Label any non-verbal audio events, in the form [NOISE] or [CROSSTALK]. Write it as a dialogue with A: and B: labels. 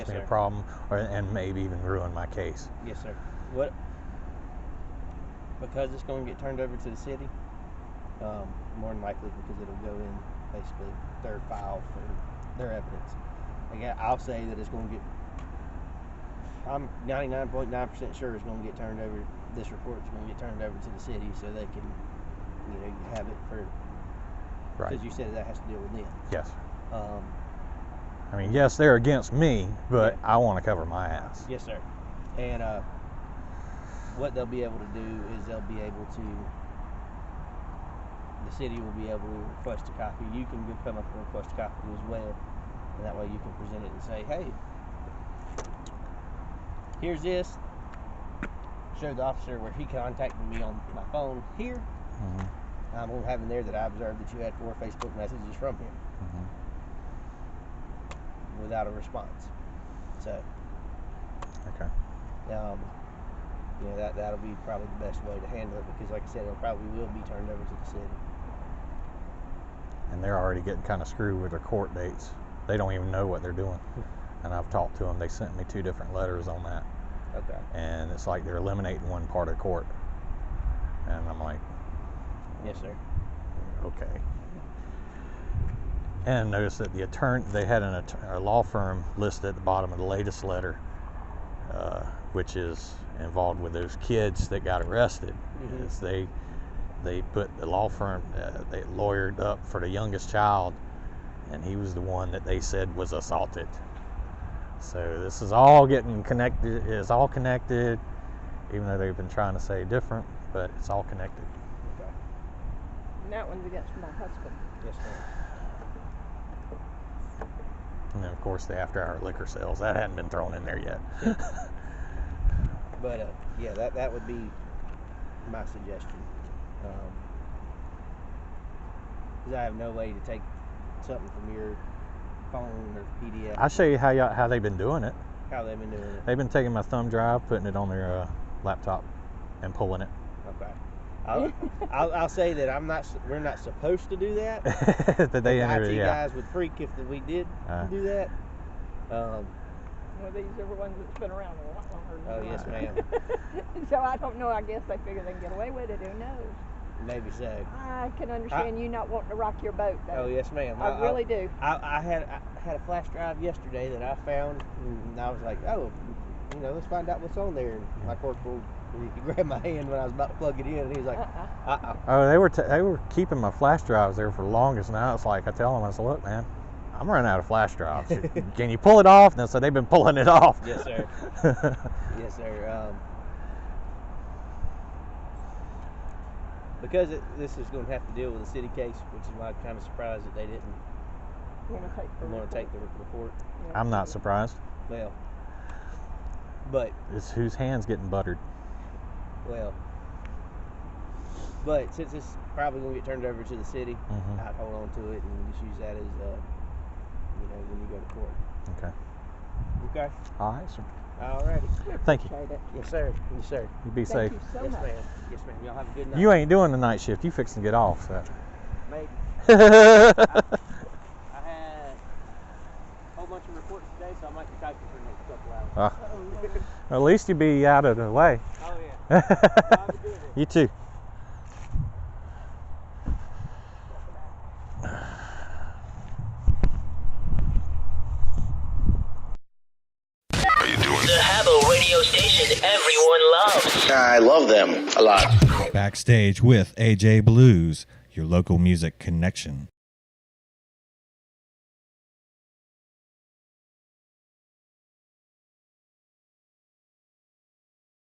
A: Yes,
B: me
A: sir.
B: a problem, or, and maybe even ruin my case.
A: Yes, sir. What? Because it's going to get turned over to the city. Um, more than likely, because it'll go in basically their file for their evidence. Again, I'll say that it's going to get. I'm 99.9% sure it's going to get turned over. This report's going to get turned over to the city so they can, you know, have it for.
B: Right.
A: Because you said that has to deal with them.
B: Yes.
A: Um,
B: I mean, yes, they're against me, but I want to cover my ass.
A: Yes, sir. And uh, what they'll be able to do is they'll be able to. The city will be able to request a copy. You can go come up and request a copy as well, and that way you can present it and say, "Hey, here's this." Show the officer where he contacted me on my phone here.
B: Mhm.
A: I'm gonna have in there that I observed that you had four Facebook messages from him without a response. So.
B: Okay.
A: Um, you know, that, that'll be probably the best way to handle it because, like I said, it'll probably will be turned over to the city.
B: And they're already getting kind of screwed with their court dates. They don't even know what they're doing. And I've talked to them. They sent me two different letters on that.
A: Okay.
B: And it's like they're eliminating one part of court. And I'm like,
A: Yes, sir.
B: okay. And notice that the attorney, they had an att- a law firm listed at the bottom of the latest letter, uh, which is involved with those kids that got arrested.
A: Mhm.
B: Is they they put the law firm, uh, they lawyered up for the youngest child, and he was the one that they said was assaulted. So this is all getting connected. It's all connected, even though they've been trying to say different, but it's all connected.
C: And that one's against my husband.
A: Yes, sir.
B: And then, of course, the after hour liquor sales. That hadn't been thrown in there yet.
A: But, uh, yeah, that, that would be my suggestion. Um 'cause I have no way to take something from your phone or PDF,
B: I'll show you how, y'all, how they've been doing it.
A: how they've been doing it.
B: They've been taking my thumb drive, putting it on their uh, laptop, and pulling it. [LAUGHS]
A: Okay. I'll, I'll, I'll say that I'm not, s- we're not supposed to do that.
B: [LAUGHS] that they
A: The
B: entered,
A: IT
B: yeah.
A: guys would freak if we did
B: Uh.
A: do that. Um,
C: Well, these are ones that's been around a lot longer than
A: Oh,
C: mine.
A: yes, ma'am.
C: [LAUGHS] so I don't know. I guess they figure they can get away with it. Who knows?
A: maybe so.
C: I can understand you not wanting to rock your boat,
A: Oh,
C: though.
A: yes, ma'am.
C: I really do.
A: I, I had I had a flash drive yesterday that I found, and I was like, oh, you know, let's find out what's on there. And my corporal, he [LAUGHS] grabbed my hand when I was about to plug it in, and he was like,
C: Uh-uh.
A: uh-uh.
B: Oh, they were t- they were keeping my flash drives there for the longest. Now it's like I tell them, I said, look, man, I'm running out of flash drives. Can you pull it off? And so they've been pulling it off.
A: Yes, sir. yes, sir. Um, because it, this is going to have to deal with a city case, which is why I'm kind of surprised that they didn't
C: Want to take the
A: want to
C: report.
A: take the report.
B: [LAUGHS]
C: Yeah.
B: I'm not surprised.
A: Well, but
B: It's whose hands getting buttered.
A: well, but since it's probably going to get turned over to the city,
B: hmm
A: I'd hold on to it and just use that as, uh, you know, when you go to court.
B: Okay.
A: Okay.
B: All right, sir.
A: All righty.
B: Thank you.
C: Appreciate it.
A: Yes, sir. Yes, sir.
B: You be safe.
C: Thank you so
A: yes,
C: much.
A: ma'am. Yes, ma'am. Y'all have a good night.
B: You ain't doing the night shift. You fixing to get off. So.
A: Mate,
B: [LAUGHS] okay.
A: I had a whole bunch of reports today, so I might be typing for the next couple hours.
B: Ah. At least you be out of the way. [LAUGHS]
A: Oh, yeah. [LAUGHS]
B: you too.
D: The Habbo radio station everyone loves.
E: I love them a lot.
F: Backstage with AJ Blues, your local music connection.